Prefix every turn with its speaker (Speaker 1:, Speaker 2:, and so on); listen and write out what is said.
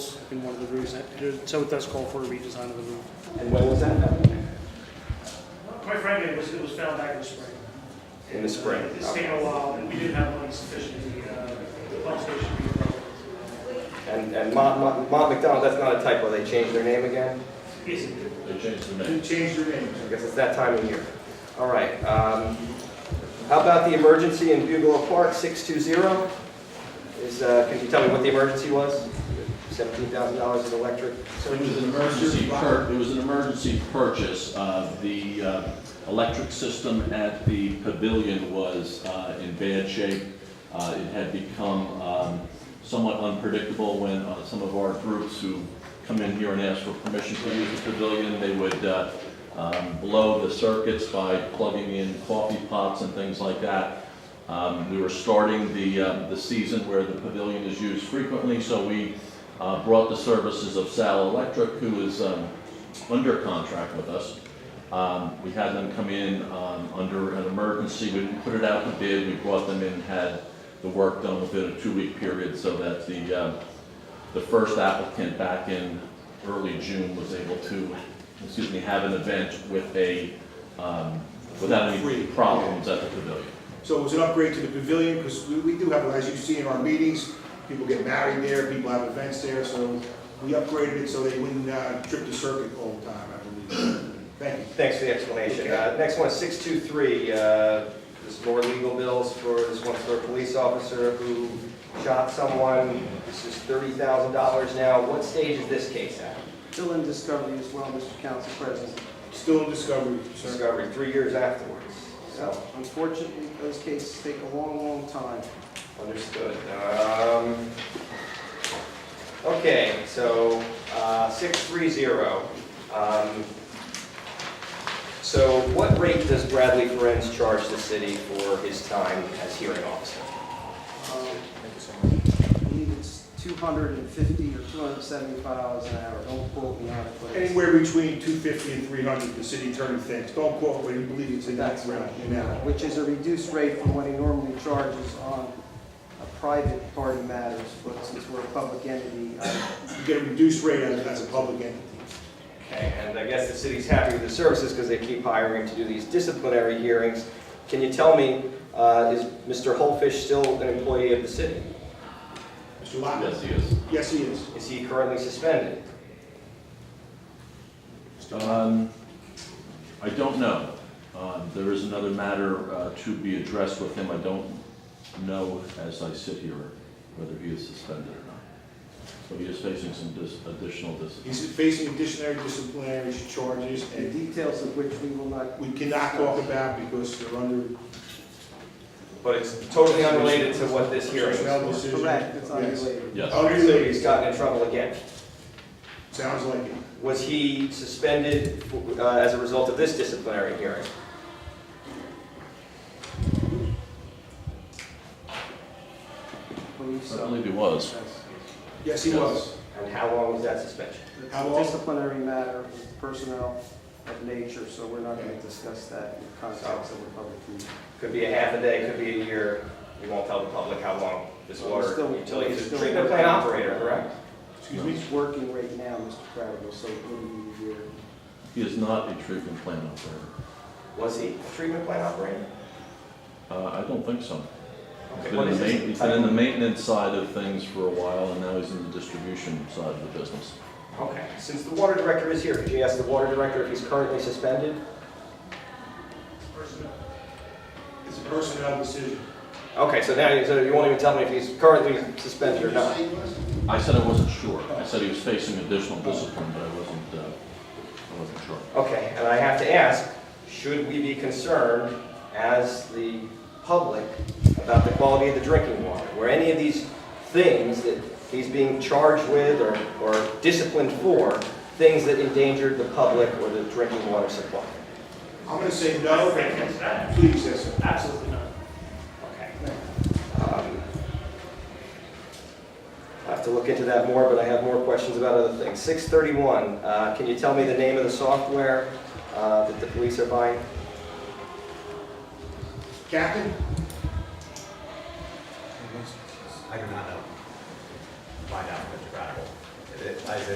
Speaker 1: in one of the roofs, that- there- so it does call for a redesign of the roof.
Speaker 2: And when was that?
Speaker 1: Quite frankly, it was, it was found back in the spring.
Speaker 2: In the spring,
Speaker 1: It's taken a while, and we didn't have money sufficient, to, uh, the pump station.
Speaker 2: And, and Mont, Mont Mont McDonald, that's not a typo, they changed their name again?
Speaker 1: Yes,
Speaker 3: They changed the
Speaker 4: You
Speaker 3: name.
Speaker 4: changed your name.
Speaker 2: I guess it's that time of year. All right, um, how about the emergency in Bugalo Park, 620? Is, uh, can you tell me what the emergency was? $17,000 in electric.
Speaker 3: It was an emergency pur, it was an emergency purchase. Uh, the, uh, electric system at the pavilion was, uh, in bad shape. Uh, it had become, um, somewhat unpredictable when, uh, some of our groups who come in here and ask for permission to use the pavilion, they would, uh, um, blow the circuits by plugging in coffee pots and things like that. Um, we were starting the, uh, the season where the pavilion is used frequently, so we, uh, brought the services of Sal Electric, who is um, under contract with us. Um, We had them come in um, under an emergency, we didn't put it out to bid, we brought them in, had the work done within a two-week period so that the, um, the first applicant back in early June was able to, excuse me, have an event with a, um, without any
Speaker 4: Free.
Speaker 3: problems at the pavilion.
Speaker 4: So it was an upgrade to the pavilion, because we, we do have, as you see in our meetings, people get married there, people have events there, so we upgraded it so they wouldn't uh, trip the circuit all the time, I believe. Thank you.
Speaker 2: Thanks for the explanation. Uh, Next one, 623, uh, this is more legal bills for this one's for a police officer who shot someone. This is $30,000 now. What stage is this case at?
Speaker 5: Still in discovery as well, Mr. Council President.
Speaker 4: Still in discovery, sir.
Speaker 2: Discovery, three years afterwards. So,
Speaker 5: So unfortunately, those cases take a long, long time.
Speaker 2: Understood. Um, Okay, so uh, 630. Um, So what rate does Bradley Ferenz charge the city for his time as hearing officer?
Speaker 5: Um, I believe it's 250 or 275 dollars an hour, don't quote me on it, but it's-
Speaker 4: Anywhere between 250 and 300, the city attorney thinks. Don't quote, but you believe it's in that
Speaker 5: that's
Speaker 4: realm.
Speaker 5: right.
Speaker 4: in that.
Speaker 5: Which is a reduced rate from what he normally charges on a private party matters, but since we're a public entity, uh, I
Speaker 4: You get a reduced rate as, as a public entity.
Speaker 2: Okay, and I guess the city's happy with the services because they keep hiring to do these disciplinary hearings. Can you tell me, uh, is Mr. Holfish still an employee of the city?
Speaker 4: Mr. Lockwood?
Speaker 3: Yes, he is.
Speaker 4: Yes, he is.
Speaker 2: Is he currently suspended?
Speaker 3: Um, I don't know. Um, There is another matter uh, to be addressed with him. I don't know as I sit here whether he is suspended or not. But he is facing some dis- additional discipline.
Speaker 4: He's facing additional disciplinary charges
Speaker 5: the
Speaker 4: and
Speaker 5: details of which we will not
Speaker 4: we cannot talk about because they're under
Speaker 2: But it's totally unrelated to what this hearing
Speaker 4: personnel
Speaker 2: is for.
Speaker 4: decision.
Speaker 5: correct, it's
Speaker 4: Yes.
Speaker 5: unrelated.
Speaker 3: Yes,
Speaker 2: So
Speaker 4: Unrelated,
Speaker 2: he's gotten in trouble again.
Speaker 4: sounds like it.
Speaker 2: Was he suspended uh, as a result of this disciplinary hearing?
Speaker 5: I believe
Speaker 3: I
Speaker 5: so.
Speaker 3: believe he was.
Speaker 5: Yes.
Speaker 4: Yes, he
Speaker 3: Yes.
Speaker 4: was.
Speaker 2: And how long was that suspension?
Speaker 5: It's
Speaker 4: How
Speaker 5: a
Speaker 4: long?
Speaker 5: disciplinary matter, it's personnel of nature, so we're not going to discuss that in the context of a public meeting.
Speaker 2: Could be a half a day, could be a year. We won't tell the public how long this
Speaker 5: Well,
Speaker 2: water
Speaker 5: still-
Speaker 2: utility is a
Speaker 5: still-
Speaker 2: treatment plant operator, correct?
Speaker 4: Excuse me?
Speaker 5: He's working right now, Mr. Cradible, so it wouldn't be a year.
Speaker 3: He is not a treatment plant operator.
Speaker 2: Was he a treatment plant operator?
Speaker 3: Uh, I don't think so. He's
Speaker 2: Okay,
Speaker 3: been
Speaker 2: what
Speaker 3: in
Speaker 2: is
Speaker 3: the
Speaker 2: his
Speaker 3: main- he's been in the
Speaker 2: title?
Speaker 3: maintenance side of things for a while, and now he's in the distribution side of the business.
Speaker 2: Okay, since the water director is here, could you ask the water director if he's currently suspended?
Speaker 4: It's a personnel decision.
Speaker 2: Okay, so now, you- so you won't even tell me if he's currently suspended or not?
Speaker 3: I said I wasn't sure. I said he was facing additional discipline, but I wasn't, uh, I wasn't sure.
Speaker 2: Okay, and I have to ask, should we be concerned as the public about the quality of the drinking water? Were any of these things that he's being charged with or, or disciplined for, things that endangered the public or the drinking water supply?
Speaker 4: I'm gonna say no.
Speaker 1: that.
Speaker 4: Please, yes, sir.
Speaker 1: Absolutely not.
Speaker 2: Okay. Um, I have to look into that more, but I have more questions about other things. 631, uh, can you tell me the name of the software uh, that the police are buying?
Speaker 4: Captain?
Speaker 6: I do not know. Find out.